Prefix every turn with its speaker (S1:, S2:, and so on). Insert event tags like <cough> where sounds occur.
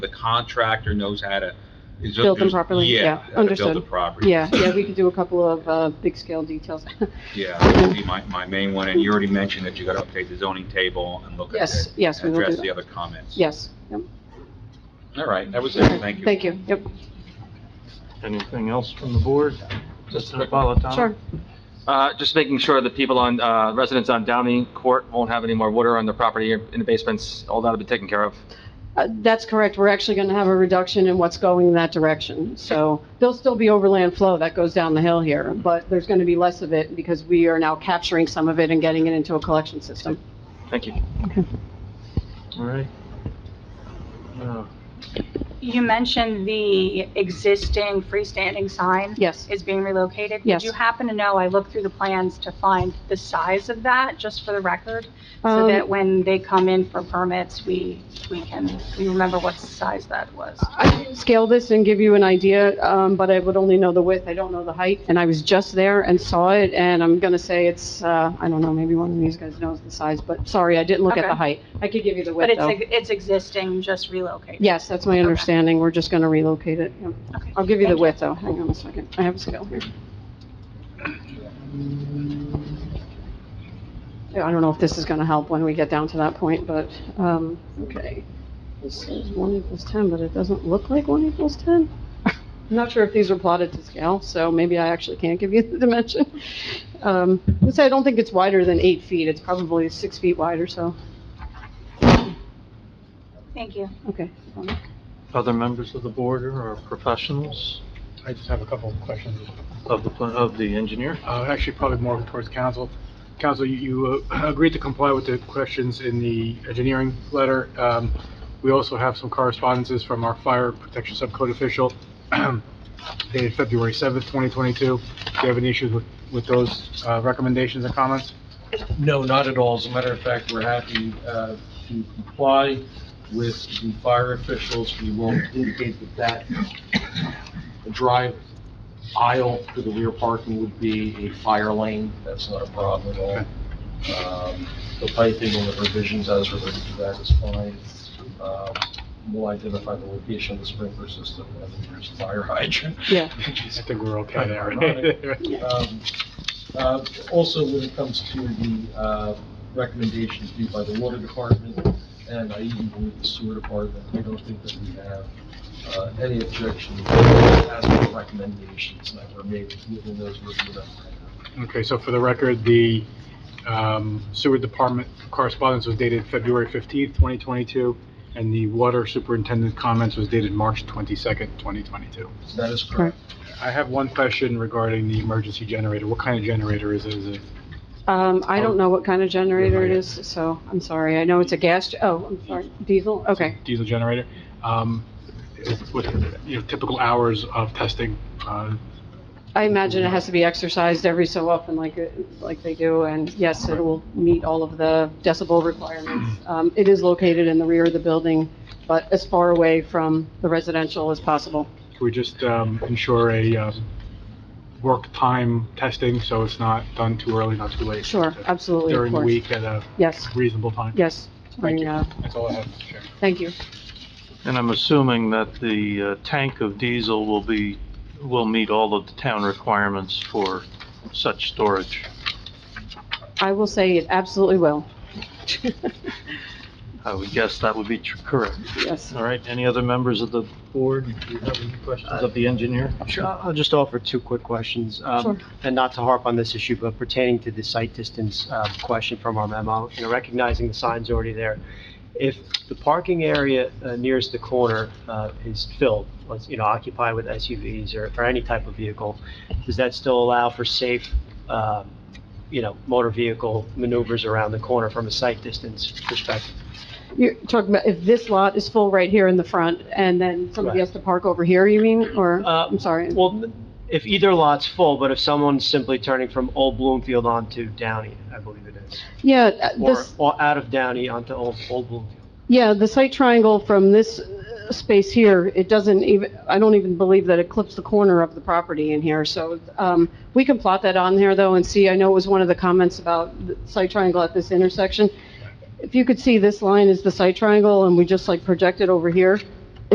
S1: the contractor knows how to. is-
S2: Build them
S1: is-
S2: properly? Yeah,
S1: how to Build the
S2: understood.
S1: property.
S2: Yeah, yeah, we could do a couple of, uh, big scale details.
S1: <laughs>
S2: <laughs>
S1: Yeah, that would be my, my main one, and you already mentioned that you gotta update the zoning table and look at
S2: Yes,
S1: it.
S2: yes, we will do
S1: Address the
S2: that.
S1: other comments.
S2: Yes. Yep.
S1: All right, that was it, thank you.
S2: Thank you, yep,
S3: Anything else from the board? Mr. Napolitano?
S2: sure.
S4: Uh, just making sure that people on, uh, residents on Downey Court won't have any more water on their property or in the basements, all that'll be taken care of.
S2: Uh, That's correct. We're actually going to have a reduction in what's going in that direction. So there'll still be overland flow that goes down the hill here, but there's going to be less of it because we are now capturing some of it and getting it into a collection system.
S4: Thank you.
S3: All right. Uh,
S5: You mentioned the existing freestanding sign
S2: Yes.
S5: is being relocated.
S2: Yes.
S5: Did you happen to know, I looked through the plans to find the size of that, just for the record? So
S2: Um,
S5: that when they come in for permits, we, we can, we remember what size that was.
S2: I can scale this and give you an idea, um, but I would only know the width. I don't know the height. And I was just there and saw it, and I'm going to say it's, uh, I don't know, maybe one of these guys knows the size, but sorry, I didn't look at
S5: Okay.
S2: the height. I could give you the
S5: But
S2: width,
S5: it's,
S2: though.
S5: ex- it's existing, just relocated.
S2: Yes, that's my understanding. We're just going to relocate it. Yep.
S5: Okay.
S2: I'll give you the
S5: Thank
S2: width, though. Hang on a second. I have a scale here. Yeah, I don't know if this is gonna help when we get down to that point, but, um, okay. This is one equals ten, but it doesn't look like one equals ten. I'm not sure if these are plotted to scale, so maybe I actually can't give you <laughs> the dimension. Um, let's say I don't think it's wider than eight feet. It's probably six feet wide or so.
S5: Thank you.
S2: Okay.
S3: Other members of the board or professionals
S6: I just have a couple of questions.
S3: of the, pla- of the engineer?
S6: Uh, Actually, probably more towards council. Council, you- you uh, agreed to comply with the questions in the engineering letter. Um, We also have some correspondences from our fire protection subcode official <clears throat> dated February 7th, 2022. Do you have any issues with with those uh, recommendations and comments?
S7: No, not at all. As a matter of fact, we're happy uh, to comply with the fire officials. We will indicate that that drive aisle to the rear parking would be a fire lane. That's not a problem at all. Um, The piping and the provisions as related to that is fine. Um, We'll identify the location of the sprinkler system and the nearest fire <laughs> hydrant.
S2: Yeah.
S6: I think we're okay there.
S7: Ironic.
S6: <laughs>
S7: Um, uh, Also, when it comes to the uh, recommendations due by the water department, and I even believe the sewer department, I don't think that we have uh, any objection as to the recommendations that were made, given those were the
S6: Okay, so for the record, the um, sewer department correspondence was dated February 15th, 2022, and the water superintendent comments was dated March 22nd, 2022.
S7: That is correct.
S6: I have one question regarding the emergency generator. What kind of generator is it? Is it
S2: Um, I
S6: Oh.
S2: don't know what kind of generator it is, so I'm sorry. I know it's a gas, ge- oh, I'm sorry, diesel, okay.
S6: diesel generator? Um, What, you know, typical hours of testing? uh,
S2: I imagine it has to be exercised every so often like, like they do, and yes, it will meet all of the decibel
S6: <clears throat>
S2: requirements. Um, it is located in the rear of the building, but as far away from the residential as possible.
S6: Can we just um, ensure a um, work time testing so it's not done too early, not too late?
S2: Sure, absolutely, of
S6: During the
S2: course.
S6: week at a
S2: Yes,
S6: reasonable time?
S2: yes.
S6: Thank you.
S2: And, uh,
S6: That's all I have, Mr. Chairman.
S2: Thank you.
S3: And I'm assuming that the uh, tank of diesel will be, will meet all of the town requirements for such storage.
S2: I will say it absolutely will.
S3: I would guess that would be tr- correct.
S2: Yes.
S3: All right, any other members of the board? Do you have any questions of the engineer?
S8: Sure, I'll I'll just offer two quick questions. um,
S2: Sure.
S8: And not to harp on this issue, but pertaining to the site distance uh, question from our memo, you know, recognizing the sign's already there. If the parking area uh, nearest the corner uh, is filled, let's, you know, occupied with SUVs or or any type of vehicle, does that still allow for safe, um, you know, motor vehicle maneuvers around the corner from a site distance perspective?
S2: You're talking about if this lot is full right here in the front, and then somebody
S8: Right.
S2: has to park over here, you mean, or,
S8: Uh,
S2: I'm sorry?
S8: Well, if either lot's full, but if someone's simply turning from Old Bloomfield onto Downey, I believe it is.
S2: Yeah, uh,
S8: Or,
S2: this,
S8: or out of Downey onto Old, Old Bloomfield.
S2: yeah, the site triangle from this uh, space here, it doesn't even, I don't even believe that it clips the corner of the property in here, so, um, we can plot that on there, though, and see, I know it was one of the comments about the site triangle at this intersection. If you could see, this line is the site triangle, and we just like project it over here,